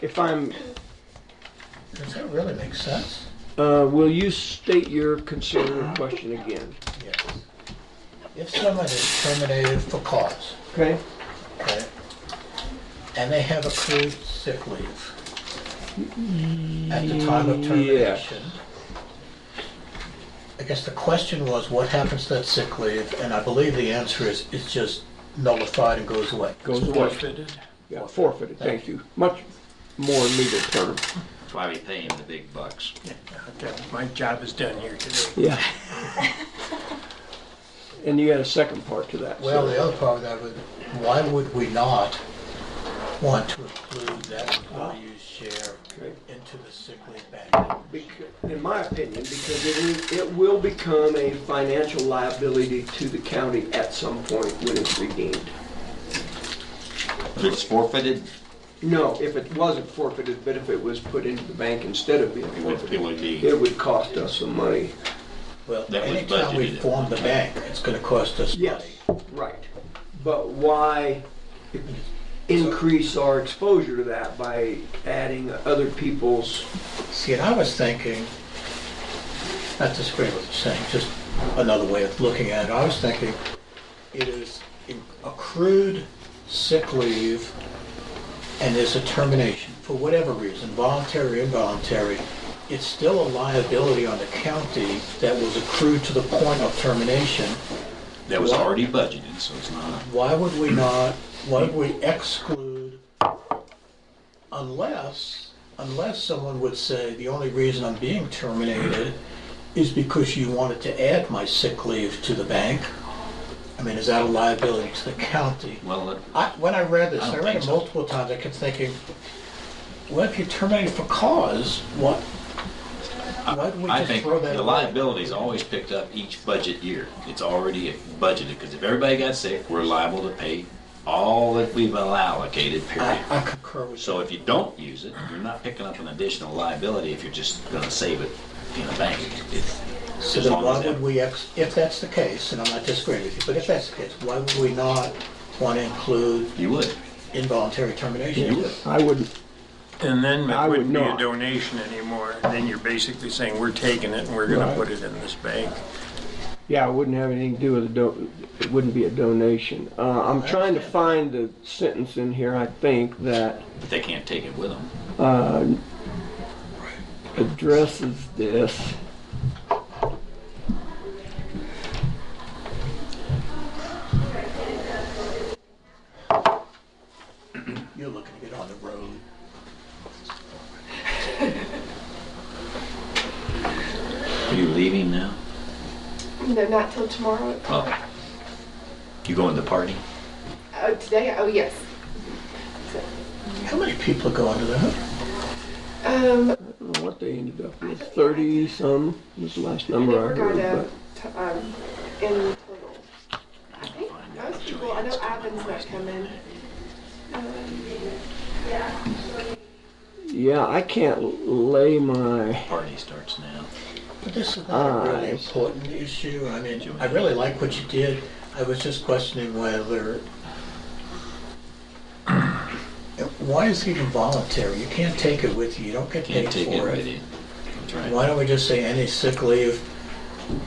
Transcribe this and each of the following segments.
if I'm, Does that really make sense? uh, will you state your concern or question again? Yes. If someone is terminated for cause, Okay. okay, and they have accrued sick leave at the time of termination, I guess the question was, what happens to that sick leave? And I believe the answer is, it's just nullified and goes away. Goes away. Yeah, forfeited, thank you. Much more legal term. That's why we pay him the big bucks. Okay, My job is done here today. Yeah. And you had a second part to that. so- Well, the other part of that would, why would we not want to include that employee's share Okay. into the sick leave bank? Becau- In my opinion, because it, it will become a financial liability to the county at some point when it's redeemed. If it's forfeited, No, if it wasn't forfeited, but if it was put into the bank instead of being it would, it forfeited, would be, it would cost us some money. Well, That was anytime we budgeted. form the bank, it's gonna cost us Yes, money. right. But why increase our exposure to that by adding other people's, See, and I was thinking, not disagreeing with what you're saying, just another way of looking at it, I was thinking, it is in- accrued sick leave and there's a termination, for whatever reason, voluntary, involuntary, it's still a liability on the county that was accrued to the point of termination. that was already budgeted, so it's not. Why would we not, why would we exclude unless, unless someone would say, the only reason I'm being terminated is because you wanted to add my sick leave to the bank? I mean, is that a liability to the county? Well, it- I, when I read this, I I don't read think it so. multiple times, I kept thinking, well, if you're terminated for cause, what? Why do we I just think throw that the away? liability is always picked up each budget year. It's already budgeted, because if everybody got sick, we're liable to pay all that we've allocated, I, period. I concur with you. So if you don't use it, you're not picking up an additional liability if you're just gonna save it in a bank. It's- So as then long as why that- would we, ex- if that's the case, and I'm not disagreeing with you, but if that's the case, why would we not want to include You would. involuntary termination? You would. I wouldn't, And then I it would wouldn't be a not. donation anymore. Then you're basically saying, we're taking it and we're gonna Right. put it in this bank. yeah, I wouldn't have anything to do with a do, it wouldn't be a donation. Uh, I'm trying to find the sentence in here, I think, that But they can't take it with them. addresses this. You're looking to get on the road. Are you leaving now? No, not till tomorrow. Oh. You going to the party? Oh, today? Oh, yes. How many people go under that? Um, I don't know what they ended up with, thirty some was the last number I we're going heard, to, but t- um, in total. I think most people, I know Ivan's not coming. yeah, I can't lay my, Party starts now. But this is not a Uh, Ah, really I see. important issue. I mean, I really like what you did. I was just questioning whether, why is it even voluntary? You can't take it with you. You don't get Can't paid take it for with it. you. That's right. Why don't we just say any sick leave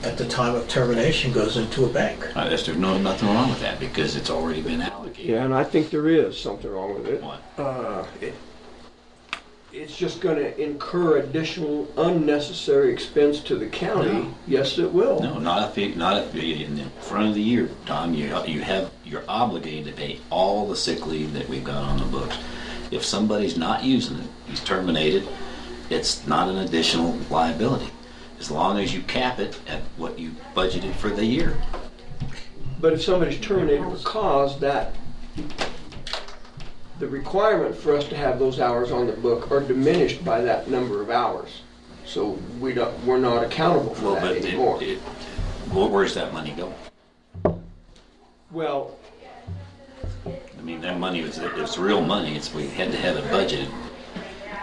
at the time of termination goes into a bank? Uh, There's there's no, nothing wrong with that because it's already been allocated. yeah, and I think there is something wrong with it. What? Uh, it- It's just gonna incur additional unnecessary expense to the county, No. yes, it will. No, not if, it- not if, in the front of the year, Tom, you, you have, you're obligated to pay all the sick leave that we've got on the books. If somebody's not using it, he's terminated, it's not an additional liability. As long as you cap it at what you budgeted for the year. But if somebody's terminated for cause, that, the requirement for us to have those hours on the book are diminished by that number of hours. So we don't, we're not accountable Well, for but that it, anymore. it, well, where's that money go? Well, I mean, that money was, it's real money, it's, we had to have it budgeted.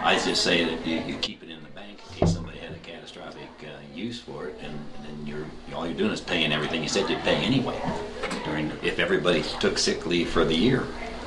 I just say that you, you keep it in the bank in case somebody had a catastrophic, uh, use for it, and then you're, all you're doing is paying everything you said you'd pay anyway. During, if everybody took sick leave for the year,